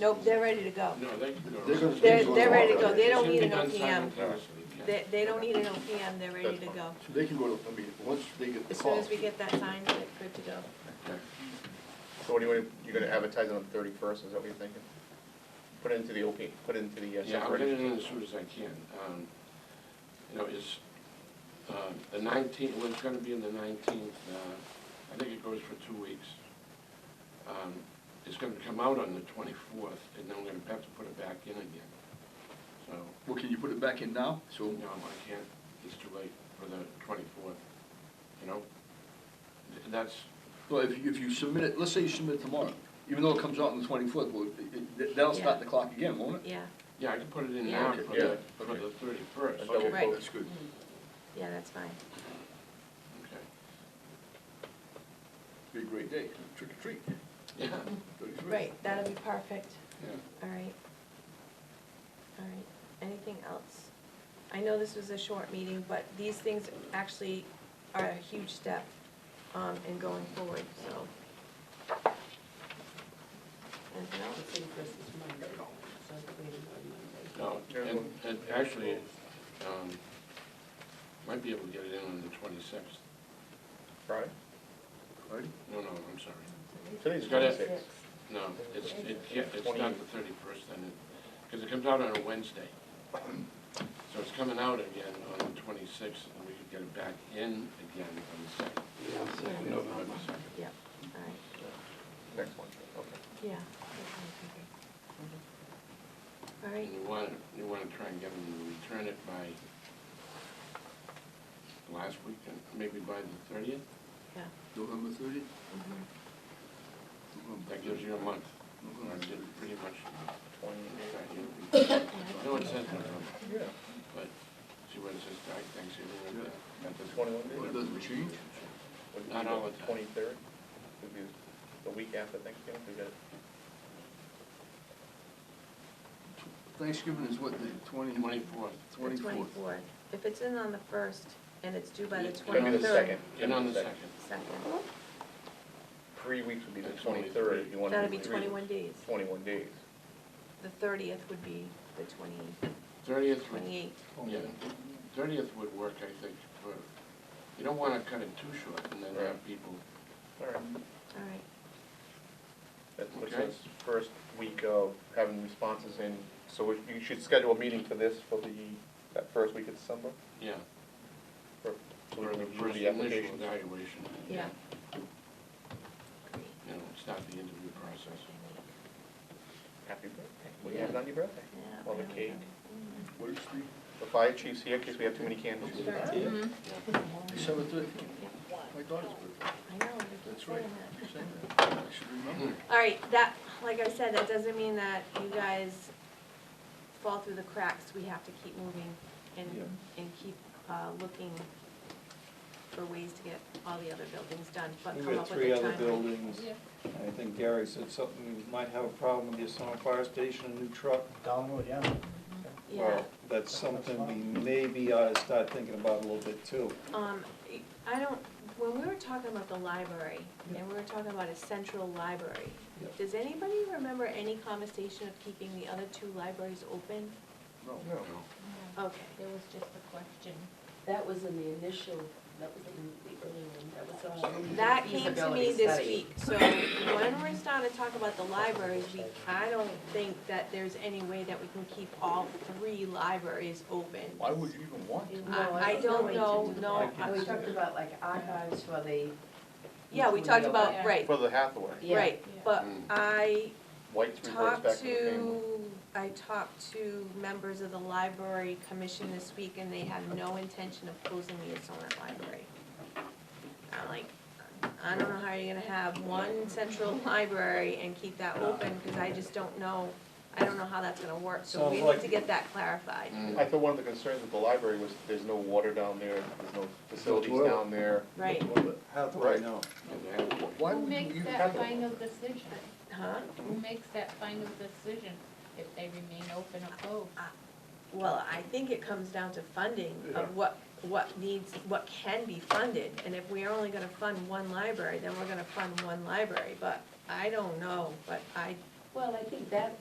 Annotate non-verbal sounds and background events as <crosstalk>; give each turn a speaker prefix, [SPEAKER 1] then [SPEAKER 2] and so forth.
[SPEAKER 1] Nope, they're ready to go.
[SPEAKER 2] No, they can go.
[SPEAKER 3] They're gonna-
[SPEAKER 1] They're, they're ready to go, they don't need an
[SPEAKER 2] Done
[SPEAKER 1] OPM.
[SPEAKER 2] simultaneously, yeah.
[SPEAKER 1] They, they don't need an OPM, they're ready to go.
[SPEAKER 3] So they can go to, I mean, once they get the
[SPEAKER 1] As
[SPEAKER 3] call.
[SPEAKER 1] soon as we get that signed, they're good to go.
[SPEAKER 4] So what do you want, you're gonna advertise it on the thirty-first, is that what you're thinking? Put it into the OP, put it into the uh,
[SPEAKER 2] Yeah, I'll get it
[SPEAKER 4] separate.
[SPEAKER 2] in as soon as I can. Um, You know, it's, uh, the nineteenth, well, it's gonna be in the nineteenth, uh, I think it goes for two weeks. Um, It's gonna come out on the twenty-fourth, and then we're gonna have to put it back in again. So,
[SPEAKER 3] Well, can you put it back in now? So,
[SPEAKER 2] no, I can't, it's too late for the twenty-fourth, you know? Th- That's,
[SPEAKER 3] well, if, you- if you submit it, let's say you submit it tomorrow, even though it comes out on the twenty-fourth, well, it- it- that'll start the clock again, won't it?
[SPEAKER 1] Yeah,
[SPEAKER 2] yeah, I can put it in
[SPEAKER 1] Yeah.
[SPEAKER 2] now for
[SPEAKER 4] Yeah,
[SPEAKER 2] the, for
[SPEAKER 3] okay.
[SPEAKER 2] the thirty-first.
[SPEAKER 4] Okay.
[SPEAKER 3] Okay,
[SPEAKER 1] Right. Mm.
[SPEAKER 3] That's good.
[SPEAKER 1] yeah, that's fine.
[SPEAKER 2] Okay.
[SPEAKER 3] Be a great day, trick or treat.
[SPEAKER 2] Yeah,
[SPEAKER 3] 33.
[SPEAKER 1] Right, that'll be perfect.
[SPEAKER 2] yeah.
[SPEAKER 1] All right. All right, anything else? I know this was a short meeting, but these things actually are a huge step um, in going forward, so. Anything
[SPEAKER 5] The
[SPEAKER 1] else?
[SPEAKER 5] thing for us is Monday, so it's waiting on Monday.
[SPEAKER 2] No, and, and actually, um, might be able to get it in on the twenty-sixth.
[SPEAKER 4] Friday?
[SPEAKER 3] Right?
[SPEAKER 2] No, no, I'm sorry.
[SPEAKER 4] Today's
[SPEAKER 2] Got it.
[SPEAKER 4] twenty-six.
[SPEAKER 2] No, it's, it can't, it's not the thirty-first then, because it comes out on a Wednesday. So it's coming out again on the twenty-sixth, and we could get it back in again on the second.
[SPEAKER 1] Yeah.
[SPEAKER 2] November second.
[SPEAKER 1] Yep, all right,
[SPEAKER 4] Next one, okay.
[SPEAKER 1] yeah. okay, okay. All right,
[SPEAKER 2] And you want, you want to try and get them to return it by the last weekend, maybe by the thirtieth?
[SPEAKER 1] yeah.
[SPEAKER 3] November thirtieth?
[SPEAKER 1] mhm.
[SPEAKER 2] That gives you a month. Or
[SPEAKER 3] November.
[SPEAKER 2] Pretty much
[SPEAKER 4] Twenty-eight.
[SPEAKER 2] No, it says November,
[SPEAKER 4] Yeah.
[SPEAKER 2] but see what it says, I think, see what it
[SPEAKER 4] At the twenty-one
[SPEAKER 3] Well, it
[SPEAKER 4] day?
[SPEAKER 3] doesn't change.
[SPEAKER 4] Would be
[SPEAKER 2] Not all the time.
[SPEAKER 4] Twenty-third, would be the week after Thanksgiving, we got it.
[SPEAKER 3] Thanksgiving is what, the twenty?
[SPEAKER 2] Twenty-fourth.
[SPEAKER 1] The
[SPEAKER 3] Twenty-fourth.
[SPEAKER 1] If it's in on the first and it's due by the
[SPEAKER 2] It's
[SPEAKER 4] It'll
[SPEAKER 1] twenty-third.
[SPEAKER 4] be the second.
[SPEAKER 2] And on the second.
[SPEAKER 1] Second,
[SPEAKER 4] Three weeks would be the
[SPEAKER 2] That's only
[SPEAKER 4] twenty-third,
[SPEAKER 2] three.
[SPEAKER 4] if you wanna do
[SPEAKER 1] that'll be
[SPEAKER 4] three.
[SPEAKER 1] twenty-one days.
[SPEAKER 4] Twenty-one days.
[SPEAKER 1] The thirtieth would be the twenty,
[SPEAKER 2] Thirtieth would,
[SPEAKER 1] twenty-eighth.
[SPEAKER 2] yeah, thirtieth would work, I think, for, you don't wanna cut it too short and then have
[SPEAKER 4] Right.
[SPEAKER 2] people,
[SPEAKER 4] All right,
[SPEAKER 1] All right,
[SPEAKER 4] that puts
[SPEAKER 2] Okay.
[SPEAKER 4] us first week of having responses in, so if- you should schedule a meeting for this for the, that first week of December?
[SPEAKER 2] yeah,
[SPEAKER 4] For so we
[SPEAKER 2] for
[SPEAKER 4] can
[SPEAKER 2] the
[SPEAKER 4] review
[SPEAKER 2] first
[SPEAKER 4] the
[SPEAKER 2] initial
[SPEAKER 4] applications.
[SPEAKER 2] evaluation.
[SPEAKER 1] yeah. Great.
[SPEAKER 2] You know, start the interview process.
[SPEAKER 4] Happy birthday. What do you have on your birthday?
[SPEAKER 1] Yeah,
[SPEAKER 4] Well, the
[SPEAKER 1] there we
[SPEAKER 4] cake.
[SPEAKER 3] What is
[SPEAKER 4] The fire chief's here in case we have too many candles.
[SPEAKER 1] go. Mhm.
[SPEAKER 2] Yeah.
[SPEAKER 3] the, December thirteenth?
[SPEAKER 1] Yeah.
[SPEAKER 3] My daughter's birthday.
[SPEAKER 1] I know, you keep
[SPEAKER 3] That's right.
[SPEAKER 1] saying that.
[SPEAKER 3] You're saying that. I should remember.
[SPEAKER 1] All right, that, like I said, that doesn't mean that you guys fall through the cracks. We have to keep moving and,
[SPEAKER 3] Yeah.
[SPEAKER 1] and keep uh, looking for ways to get all the other buildings done, but
[SPEAKER 6] We've
[SPEAKER 1] come
[SPEAKER 6] got
[SPEAKER 1] up with a
[SPEAKER 6] three other
[SPEAKER 1] timeline.
[SPEAKER 6] buildings. I think Gary said something, we might have a problem with the Assona Fire Station, a new truck.
[SPEAKER 7] Download, yeah.
[SPEAKER 1] Yeah,
[SPEAKER 4] Well,
[SPEAKER 6] That's something we maybe ought to start thinking about a little bit too.
[SPEAKER 1] um, I don't, when we were talking about the library, and we were talking about a central library,
[SPEAKER 6] Yeah.
[SPEAKER 1] does anybody remember any conversation of keeping the other two libraries open?
[SPEAKER 3] No.
[SPEAKER 4] No.
[SPEAKER 1] Okay.
[SPEAKER 5] There was just a question. That was in the initial, that was in the early one, that was on.
[SPEAKER 1] That came to me
[SPEAKER 5] feasibility
[SPEAKER 1] this
[SPEAKER 5] study.
[SPEAKER 1] week, so when we're starting to talk about the libraries, we, I don't think that there's any way that we can keep all three libraries open.
[SPEAKER 3] Why would you even want to?
[SPEAKER 5] No,
[SPEAKER 1] I, I
[SPEAKER 5] there's no way
[SPEAKER 1] don't know,
[SPEAKER 5] to do
[SPEAKER 1] no,
[SPEAKER 5] that. We
[SPEAKER 1] I-
[SPEAKER 5] talked about like archives for the.
[SPEAKER 1] yeah, we talked about, right,
[SPEAKER 4] For the Hathaway,
[SPEAKER 5] Yeah.
[SPEAKER 1] right, but
[SPEAKER 2] Mm.
[SPEAKER 1] I
[SPEAKER 4] White's reverts
[SPEAKER 1] talked
[SPEAKER 4] back to the family.
[SPEAKER 1] to, I talked to members of the library commission this week, and they have no intention of closing the Asonet Library. I'm like, I don't know how you're gonna have one central <laughs> library and keep that open, because I just don't know, I don't know how that's gonna work, so we
[SPEAKER 6] Sounds like-
[SPEAKER 1] need to get that clarified.
[SPEAKER 2] Mm.
[SPEAKER 4] I thought one of the concerns with the library was there's no water down there, there's no facilities
[SPEAKER 3] toilet.
[SPEAKER 4] down there.
[SPEAKER 1] Right,
[SPEAKER 6] Hathaway, no.
[SPEAKER 2] Yeah, they have-
[SPEAKER 3] Why
[SPEAKER 8] Who
[SPEAKER 3] would you
[SPEAKER 8] makes
[SPEAKER 3] even
[SPEAKER 8] that
[SPEAKER 3] have it?
[SPEAKER 8] final decision?
[SPEAKER 1] huh?
[SPEAKER 8] Who makes that final decision if they remain open or closed?
[SPEAKER 1] Well, I think it comes down to funding
[SPEAKER 3] Yeah.
[SPEAKER 1] of what, what needs, what can be funded. And if we're only gonna fund one library, then we're gonna fund one library, but I don't know, but I,
[SPEAKER 5] Well, I think that